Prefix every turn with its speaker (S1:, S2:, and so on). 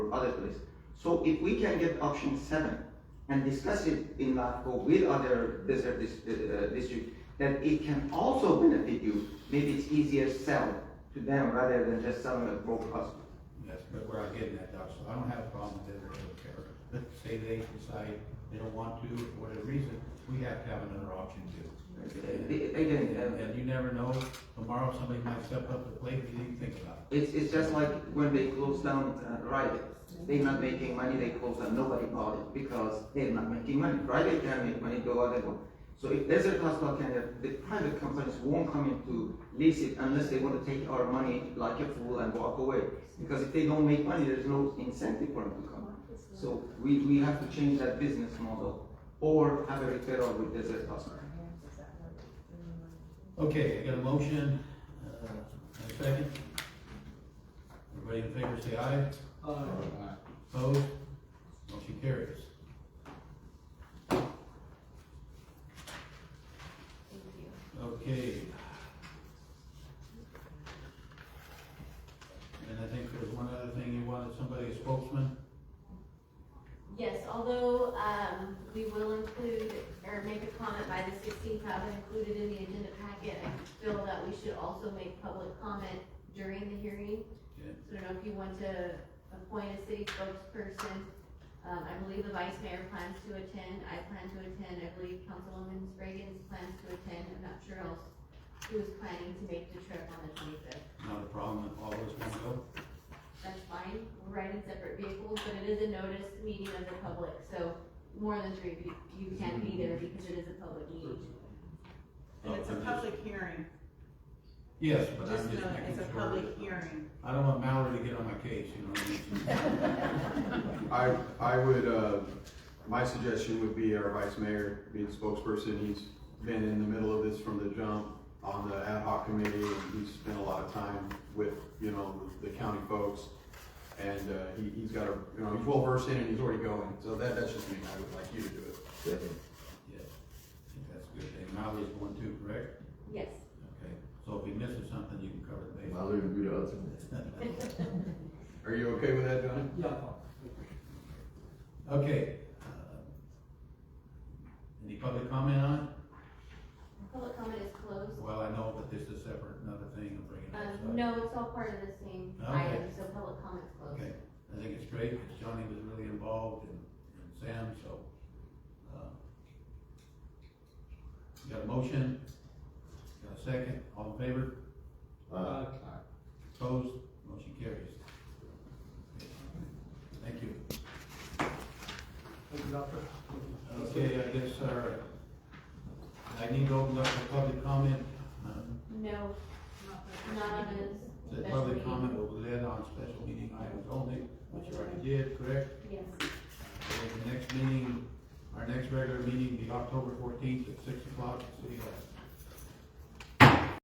S1: to other place. So if we can get option seven and discuss it in LAFCO with other desert dis- uh, district, that it can also benefit you, maybe it's easier sell to them rather than just selling at full cost.
S2: That's but where I'm getting at, Doc, so I don't have a problem with it, I don't care. Say they decide they don't want to, for whatever reason, we have to have another option too.
S1: A- Again,
S2: And,
S1: uh,
S2: and you never know, tomorrow somebody might step up to the plate, you didn't think about
S1: it's, it's just like when they close down uh, Rite Aid. They're not making money, they close down, nobody bought it because they're not making money. Rite Aid can make money, go other one. So if Desert Hospital can, have- the private companies won't come in to lease it unless they want to take our money like a fool and walk away. Because if they don't make money, there's no incentive for them to come. So we, we have to change that business model or have a referral with Desert Hospital.
S2: it. Okay, I got a motion, uh, and a second. Everybody in favor say aye. Aye. Opposed? Motion carries. Okay. And I think there's one other thing you wanted, somebody a spokesman?
S3: Yes, although, um, we will include, or make a comment by the sixteenth, have it included in the agenda packet. I feel that we should also make public comment during the hearing.
S2: Okay.
S3: So I don't know if you want to appoint a city spokesperson. Um, I believe the vice mayor plans to attend, I plan to attend, I believe Councilwoman Reagan's plans to attend, I'm not sure else who is planning to make the trip on the twenty-fifth.
S2: Not a problem, if all those want to go?
S3: that's fine, we're riding separate vehicles, but it is a notice meeting of the public, so more than three of you, you can be there
S2: Mm-hmm.
S3: because it is a public meeting.
S4: And it's a public hearing,
S2: Yes, Oh, but I'm
S4: just
S2: just
S4: know
S2: making
S4: it,
S2: sure.
S4: it's a public hearing.
S2: I don't want Mallory to get on my case, you know what
S5: I, I would, uh, my suggestion would be our vice mayor, being spokesperson, he's been in the middle of this from the jump on the ad hoc committee, and he's spent a lot of time with, you know, the county folks. And, uh, he, he's got a, you know, he's well versed in it, and he's already going, so that, that's just me, I would like you to do it.
S2: I mean? Yes, I think that's a good thing. Mallory's going too, correct?
S3: Yes.
S2: Okay, so if he misses something, you can cover the
S6: I'll leave you to others.
S2: base.
S5: Are you okay with that, Johnny?
S2: Okay. uh, Any public comment on it?
S3: Public comment is closed.
S2: Well, I know, but this is separate, another thing I'm bringing up. so I-
S3: Um, no, it's all part of the same
S2: Okay.
S3: item, so public comment is closed.
S2: Okay, I think it's great, because Johnny was really involved and, and Sam, so, uh, you got a motion? Got a second, all in favor,
S6: Uh,
S2: opposed, motion carries. Thank you. Okay, I guess, our I need to open up the public comment, um,
S3: No, not on this.
S2: the
S3: special
S2: public
S3: meeting.
S2: comment will be led on special meeting items only, which you already did, correct?
S3: Yes,
S2: And the next meeting, our next regular meeting will be October fourteenth at six o'clock at City Hall.